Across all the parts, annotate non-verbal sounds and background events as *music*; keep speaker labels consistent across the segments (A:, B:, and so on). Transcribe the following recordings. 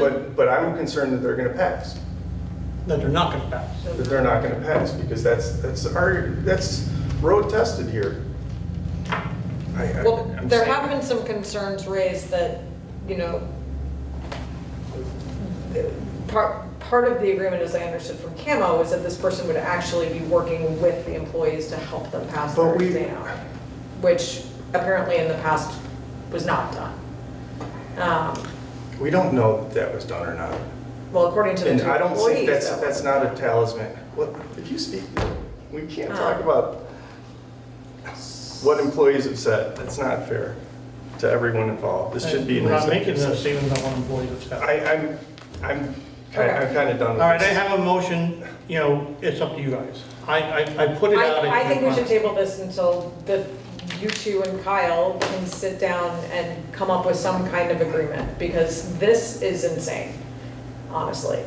A: But, but I'm concerned that they're gonna pass,
B: that they're not gonna pass.
A: that they're not gonna pass, because that's, that's our, that's road tested here. I- I-
C: Well,
A: I'm
C: there
A: saying-
C: have been some concerns raised that, you know, part, part of the agreement, as I understood from Camo, is that this person would actually be working with the employees to help them pass their
A: But we-
C: exam, which apparently in the past was not done. Um,
A: We don't know that that was done or not.
C: Well, according to the
A: And
C: two
A: I don't think,
C: employees,
A: that's,
C: that
A: that's
C: was
A: not a
C: done.
A: talisman. What, if you speak, we can't
C: Oh.
A: talk about what employees have said. That's not fair to everyone involved. This should be an
B: We're not making
A: executive
B: those
A: session.
B: statements about employees of staff.
A: I, I'm, I'm, ki- I'm kind of done
B: All right,
A: with
B: I
A: this.
B: have a motion, you know, it's up to you guys. I, I, I put it out.
C: I, I
B: in
C: think we
B: the-
C: should table this until the, you two and Kyle can sit down and come up with some kind of agreement, because this is insane, honestly.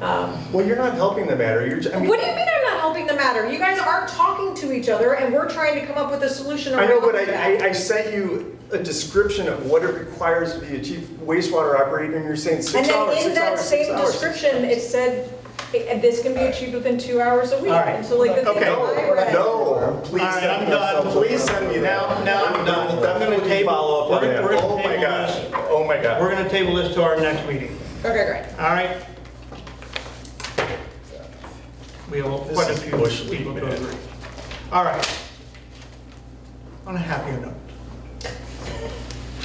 C: Um,
A: Well, you're not helping the matter. You're, j- I mean.
C: What do you mean I'm not helping the matter? You guys aren't talking to each other, and we're trying to come up with a solution.
A: I know,
C: around
A: but I,
C: that.
A: I, I sent you a description of what it requires to be a chief wastewater operator and you're saying
C: And
A: six hours,
C: then in
A: six
C: that
A: hours, six
C: same
A: hours.
C: description, it said, "Eh, this can be achieved within two hours a week.
B: All right.
C: And so like the thing
B: Okay.
C: that I read.
A: No, please.
B: All right,
A: send
B: I'm
A: me
B: done.
A: something. Please send me
B: Now-
A: that.
B: now I'm done. I'm gonna
A: Definitely
B: table-
A: follow up on
B: we're
A: that.
B: gonna- we're gonna
A: Oh my
B: table
A: gosh,
B: this.
A: oh my
B: We're
A: god. *laughs*
B: gonna table this to our next meeting,
C: Okay, great.
B: all right? We have quite a
A: is
B: few
A: bush league,
B: people to
A: man.
B: agree. All right. On a happier note.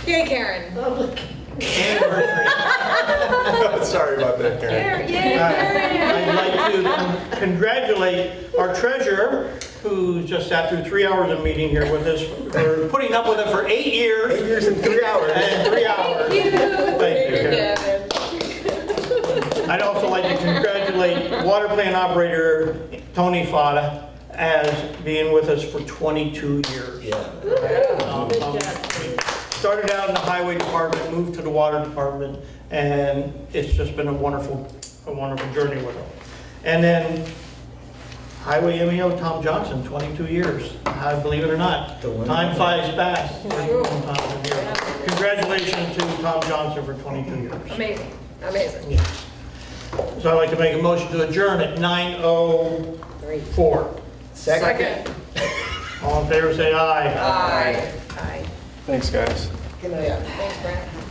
C: Yay, Karen.
B: Anniversary.
A: Sorry about that, Karen. *laughs*
C: Yay,
B: I'd like to congratulate our treasurer, who just sat through three hours of meeting here with us, for putting up with it for eight
A: Eight
B: years
A: years and three hours.
B: and three hours. Thank you, Karen.
C: Karen.
B: I'd also like to congratulate water plant operator Tony Fada as being with us for 22 years. Um, um, Started out in the highway department, moved to the water department, and it's just been a wonderful, a wonderful journey with him. And then highway MEO Tom Johnson, 22 years, I- believe it or not.
D: The one-
B: Time flies fast. Uh, Congratulations to Tom Johnson for 22 years.
C: Amazing, amazing.
B: Yes. So I'd like to make a motion to adjourn at 9:04.
C: Second.
B: All in favor, say aye.
C: Aye. Aye.
A: Thanks, guys.
D: Good night.
C: Thanks, Brent.